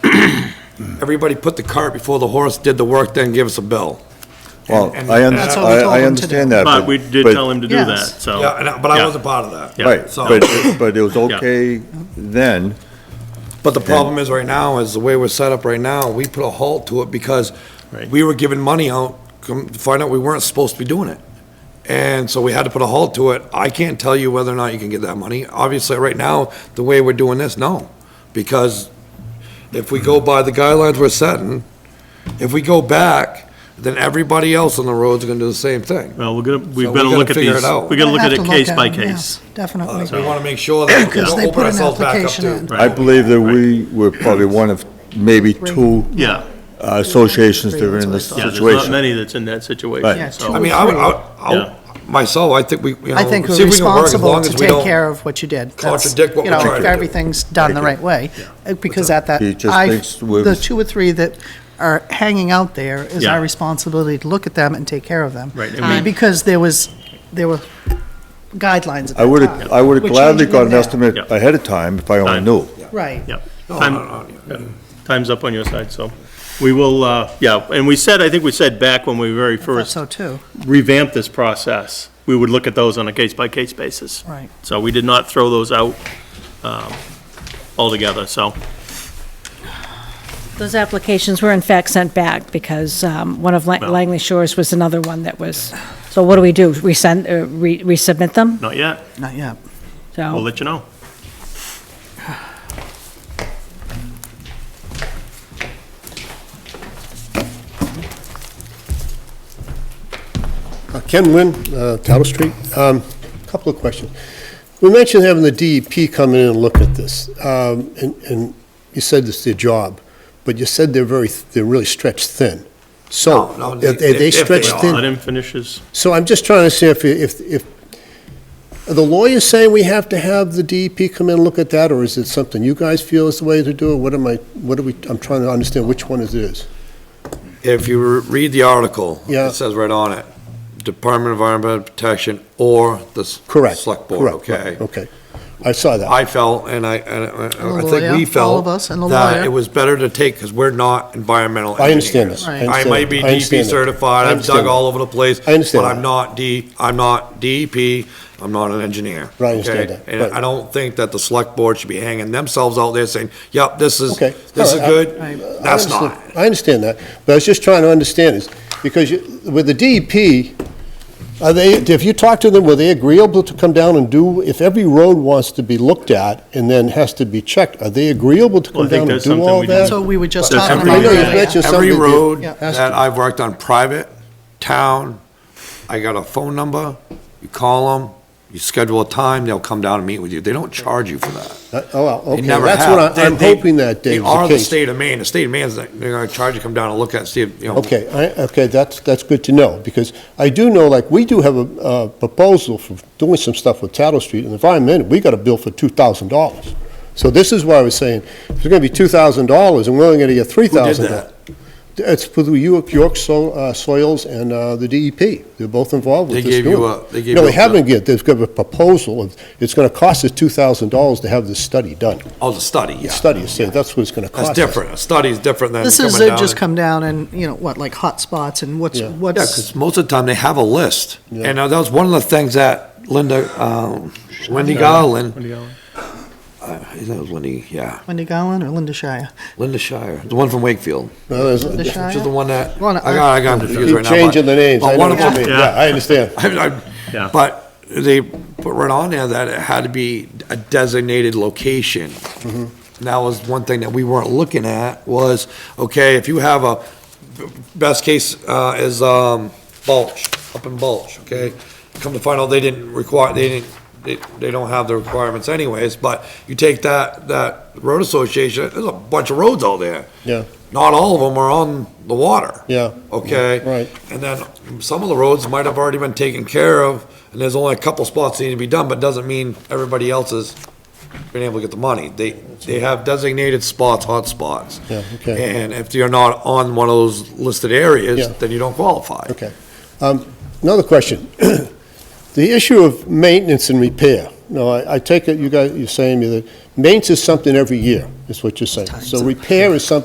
everybody put the cart before the horse, did the work, then give us a bill. Well, And- I, un- and- That's what we I told I him to understand do. that. But we did but- tell him to do Yes. that, so. Yeah, and I- but I wasn't part of that. Oh. Yeah. Right, So- but, but it was okay then, But the problem is right now, is the way we're set up right now, we put a halt to it because Right. we were giving money out, come to find out we weren't supposed to be doing it. And so we had to put a halt to it. I can't tell you whether or not you can get that money. Obviously, right now, the way we're doing this, no. Because if we go by the guidelines we're setting, if we go back, then everybody else on the road's gonna do the same thing. Well, we're gonna, So we've we got to gotta look at figure it these, out. we got to We'll look at have it case by at 'em, yeah, case. Uh, We Definitely. wanna make sure that we Because they don't open put an ourselves back up application to. in. I believe that we were probably one of maybe two Yeah, uh, associations that were in this yeah, there's not situation. many that's in that Yeah, situation, two I so. or mean, I would, three. I would- I would, myself, I think we, you know. I think see we're if we can work as long responsible as to we take don't- care of what you did. That's- contradict what you we know, tried if to do. Everything's done the right way, Uh, because at that, He just I, thinks we're- the two or three that are hanging out there is Yeah. our responsibility to look at them and take care of them. Um, Right, and we- Because there was, there were guidelines at that I would time. have, I would We're have gladly changing got an them now. estimate Yeah. ahead of time if I only Time. knew. Right. Yeah. No, Time- no, no, yeah. Time's up on your side, so. We will, uh, yeah, and we said, I think we said back when we very Thought first so too, revamped this process, we would look at those on a case-by-case basis. right. So we did not throw those out um, altogether, so. Those applications were in fact sent back because um, one of Lang- Well- Langley Shores was another one that was, so what do we do? Resend, uh, re- resubmit them? Not yet. Not yet. We'll So, let you know. Uh, Ken Wynn, uh, Tattle Street. Um, Couple of questions. We mentioned having the DEP come in and look at this, um, and and you said it's their job, but you said they're very, they're really stretched thin. So, No, no, are they- if- they if they stretched are, Let thin? him finish his, So I'm just trying to see if, if, if, are the lawyers saying we have to have the DEP come in and look at that, or is it something you guys feel is the way to do it? What am I, what are we, I'm trying to understand which one it is. If you re- read the article, Yeah. it says right on it, Department of Environmental Protection or the. s- Correct. Select Board, correct, okay? Okay. I saw that. I felt, and I, and I- the I think lawyer, all we felt. of us and the That lawyer. it was better to take, because we're not environmental I understand engineers. this. Right. I I understand might that. be I DEP understand that. certified, I I've understand dug that. all over the place. I understand But that. I'm not D, I'm not DEP, I'm not an engineer. Right, I understand okay? that. And Right. I don't think that the Select Board should be hanging themselves out there saying, yep, this is, Okay. this is All right, I- good, I- I that's not. understand- I understand that, but I was just trying to understand is, because you- with the DEP, are they, if you talk to them, were they agreeable to come down and do, if every road wants to be looked at and then has to be checked, are they agreeable to Well, I come think down and that's do something all we do. that? So we were just That's talking something about. we that. do. Yeah. Just Every something that- road Yeah. that I've worked on private, town, I got a phone number, you call them, you schedule a time, they'll come down and meet with you. They don't charge you for that. That- Oh, wow, They okay, never that's have. what I- They- I'm they- hoping that, Dave, is They are the the case. state of Maine. The state of Maine's, like, they're gonna charge you to come down and look at, see if, you know. Okay, I, okay, that's, that's good to know, because I do know, like, we do have a, a proposal for doing some stuff with Tattle Street, and if I'm in, it, we got a bill for two thousand dollars. So this is why I was saying, if it's gonna be two thousand dollars, and we're only gonna get three Who did thousand. that? It's for the York, York So- uh, Soils and, uh, the DEP, they're both involved They with this. gave you doing. a- they gave No, you they a- haven't yet, they've got a proposal, of- it's gonna cost us two thousand dollars to have this study done. Oh, the study, yeah. Study, so that's what it's gonna cost That's us. different. A study's different than This coming is, down. uh, just and- come down and, you know, what, like hot spots and what's, Yeah. what's. Yeah, because most of the time they have a list. Yeah. And uh, that was one of the things that Linda, um, Wendy what do Garland, you got? I think that was Wendy, yeah, Wendy Gowan or Linda Shire? Linda Shire, the one from Wakefield. No, there's- The Shire? Which is the one that, I Well, got, I got confused Keep right now. but- changing the names, I But know one of what you mean, them, yeah, I understand. I- Yeah. I- but they put right on there that it had to be a designated location. Mm-hmm. And that was one thing that we weren't looking at was, okay, if you have a, best case, uh, is, um, Bulge, up in Bulge, okay? Come to find out, they didn't require, they didn't, they, they don't have the requirements anyways, but you take that, that road association, there's a bunch of roads out there. Yeah. Not all of them are on the water. Yeah. Okay? Right. And then some of the roads might have already been taken care of, and there's only a couple spots that need to be done, but doesn't mean everybody else has been able to get the money. They, they have designated spots, hot spots. Yeah, okay. And if you're not on one of those listed areas, Yeah. then you don't qualify. Okay. Um, Another question. The issue of maintenance and repair. Now, I I take it you guys, you're saying to me that maintenance is something every year, is what you're saying. So repair is something